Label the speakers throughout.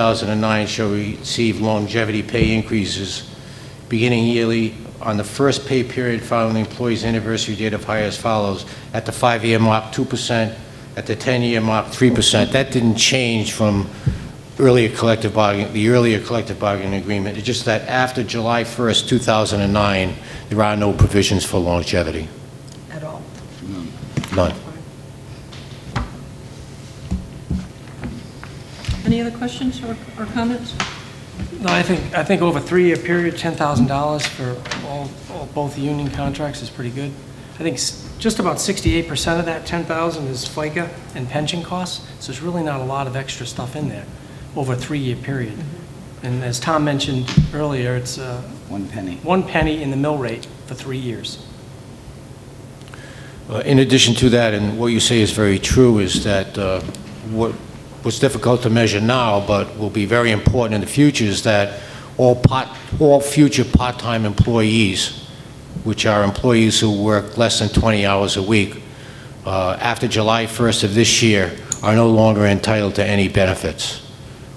Speaker 1: 2009 shall receive longevity pay increases beginning yearly on the first pay period following the employee's anniversary date of hire as follows: at the five-year mark, 2%, at the 10-year mark, 3%. That didn't change from earlier collective bargaining, the earlier collective bargaining agreement. It's just that after July 1st, 2009, there are no provisions for longevity,
Speaker 2: at all.
Speaker 1: none.
Speaker 2: Any other questions or or comments?
Speaker 3: No, I think, I think over a three-year period, $10,000 for all, all- both the union contracts is pretty good. I think s- just about 68% of that 10,000 is FICA and pension costs, so there's really not a lot of extra stuff in there over a three-year period. And as Tom mentioned earlier, it's uh,
Speaker 4: One penny.
Speaker 3: one penny in the mill rate for three years.
Speaker 1: Uh, In addition to that, and what you say is very true, is that uh, what what's difficult to measure now, but will be very important in the future, is that all part, all future part-time employees, which are employees who work less than 20 hours a week, uh, after July 1st of this year, are no longer entitled to any benefits,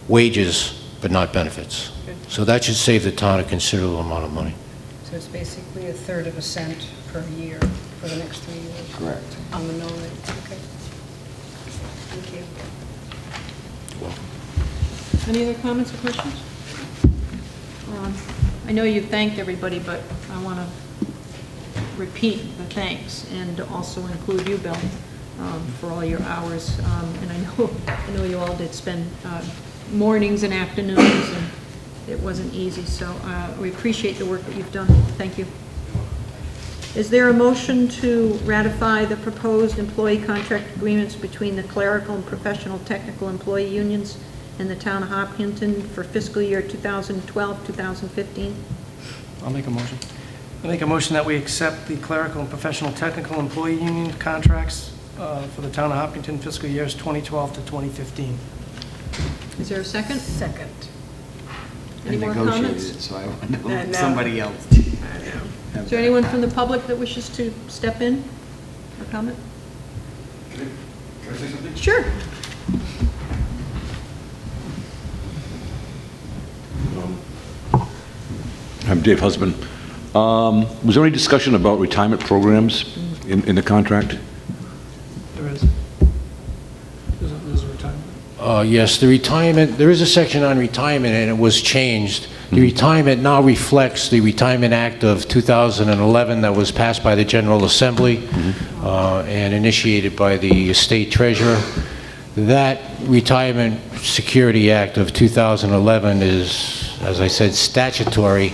Speaker 1: wages, but not benefits. So that should save the town a considerable amount of money.
Speaker 2: So it's basically a third of a cent per year for the next three years
Speaker 4: Correct.
Speaker 2: on the mill rate. Okay. Thank you. Any other comments or questions? Um, I know you thanked everybody, but I want to repeat the thanks and also include you, Bill, um, for all your hours. Um, And I know, I know you all did spend uh, mornings and afternoons, and it wasn't easy, so uh, we appreciate the work that you've done. Thank you. Is there a motion to ratify the proposed employee contract agreements between the clerical and professional technical employee unions and the town of Hopkinton for fiscal year 2012, 2015?
Speaker 3: I'll make a motion. I make a motion that we accept the clerical and professional technical employee union contracts uh, for the town of Hopkinton fiscal years 2012 to 2015.
Speaker 2: Is there a second? Second.
Speaker 4: I
Speaker 2: Any more
Speaker 4: negotiated it,
Speaker 2: comments?
Speaker 4: So I want to
Speaker 2: I know.
Speaker 4: let somebody else.
Speaker 2: Is there anyone from the public that wishes to step in or comment?
Speaker 5: Can I say something?
Speaker 2: Sure.
Speaker 5: I'm Dave Husband. Um, Was there any discussion about retirement programs in in the contract?
Speaker 3: There is. There's a- there's a retirement.
Speaker 1: Uh, Yes, the retirement, there is a section on retirement, and it was changed. The retirement now reflects the Retirement Act of 2011 that was passed by the General Assembly uh, and initiated by the State Treasurer. That Retirement Security Act of 2011 is, as I said, statutory,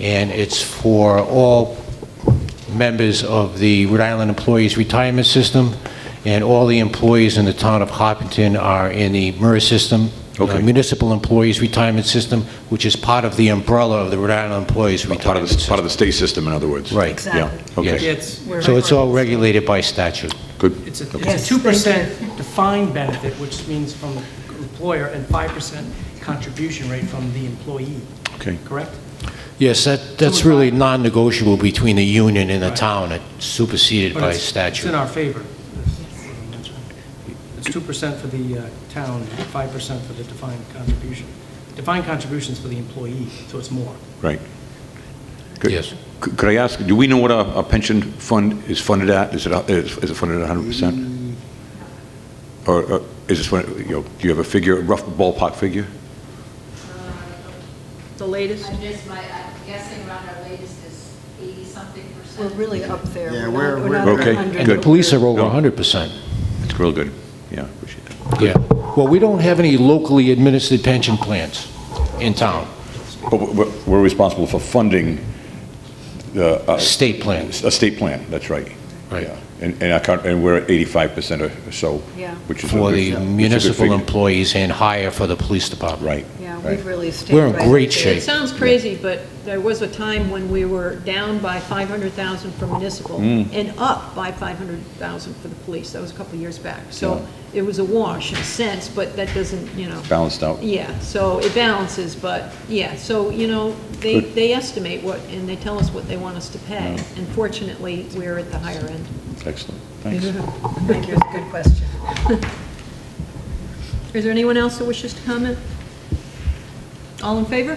Speaker 1: and it's for all members of the Rhode Island Employees Retirement System, and all the employees in the town of Hopkinton are in the MERS system, the
Speaker 5: Okay.
Speaker 1: Municipal Employees Retirement System, which is part of the umbrella of the Rhode Island Employees
Speaker 5: Part of
Speaker 1: Retirement
Speaker 5: the, part
Speaker 1: System.
Speaker 5: of the state system, in other words?
Speaker 1: Right.
Speaker 5: Yeah,
Speaker 3: Yeah,
Speaker 5: okay,
Speaker 3: it's,
Speaker 1: So it's all regulated by statute.
Speaker 5: good.
Speaker 3: it's a it's a 2% defined benefit, which means from employer, and 5% contribution rate from the employee,
Speaker 5: Okay,
Speaker 3: correct?
Speaker 1: Yes, that, that's
Speaker 3: we-
Speaker 1: really non-negotiable between the union and the
Speaker 3: Right.
Speaker 1: town. It's superseded
Speaker 3: But
Speaker 1: by
Speaker 3: it's- It's in
Speaker 1: statute.
Speaker 3: our favor. It's 2% for the uh, town, 5% for the defined contribution. Defined contribution's for the employee, so it's more.
Speaker 5: right. Good.
Speaker 1: Yes.
Speaker 5: C- Could I ask, do we know what our our pension fund is funded at? Is it, a- is is it funded at 100%? Or or is this, one- you know, do you have a figure, a rough ballpark figure?
Speaker 2: The latest?
Speaker 6: I'm just, my, I'm guessing around our latest is eighty-something
Speaker 2: We're
Speaker 6: percent.
Speaker 2: really up there.
Speaker 4: Yeah,
Speaker 2: not-
Speaker 4: we're-
Speaker 2: not
Speaker 5: we're-
Speaker 2: at
Speaker 5: Okay,
Speaker 2: 100,
Speaker 1: And the
Speaker 5: good.
Speaker 1: police are over
Speaker 5: No.
Speaker 1: 100%.
Speaker 5: It's real good, yeah, appreciate that.
Speaker 1: Yeah. Well, we don't have any locally administered pension plans in town,
Speaker 5: But we're- We're responsible for funding the, uh,
Speaker 1: state plans.
Speaker 5: A state plan, that's right.
Speaker 1: Right.
Speaker 5: Yeah. And, and I can't, and we're at eighty-five percent or so.
Speaker 2: Yeah.
Speaker 5: Which is. a
Speaker 1: for
Speaker 5: good-
Speaker 1: the
Speaker 5: it's a good
Speaker 1: municipal
Speaker 5: figure.
Speaker 1: employees and higher for the police department.
Speaker 5: Right.
Speaker 2: Yeah,
Speaker 5: right.
Speaker 2: we've really stayed
Speaker 1: We're in
Speaker 2: right
Speaker 1: great
Speaker 2: there.
Speaker 1: shape.
Speaker 2: It sounds crazy, but there was a time when we were down by 500,000 for municipal and up by 500,000 for the police. That was a couple of years back. So it was a wash in a sense, but that doesn't, you know.
Speaker 5: Balanced out.
Speaker 2: Yeah, so it balances, but, yeah, so, you know, they,
Speaker 5: Good.
Speaker 2: they estimate what, and they tell us what they want us to pay. And fortunately, we're at the higher end.
Speaker 5: Excellent, thanks.
Speaker 2: Thank you, it's a good question. Is there anyone else that wishes to comment? All in favor?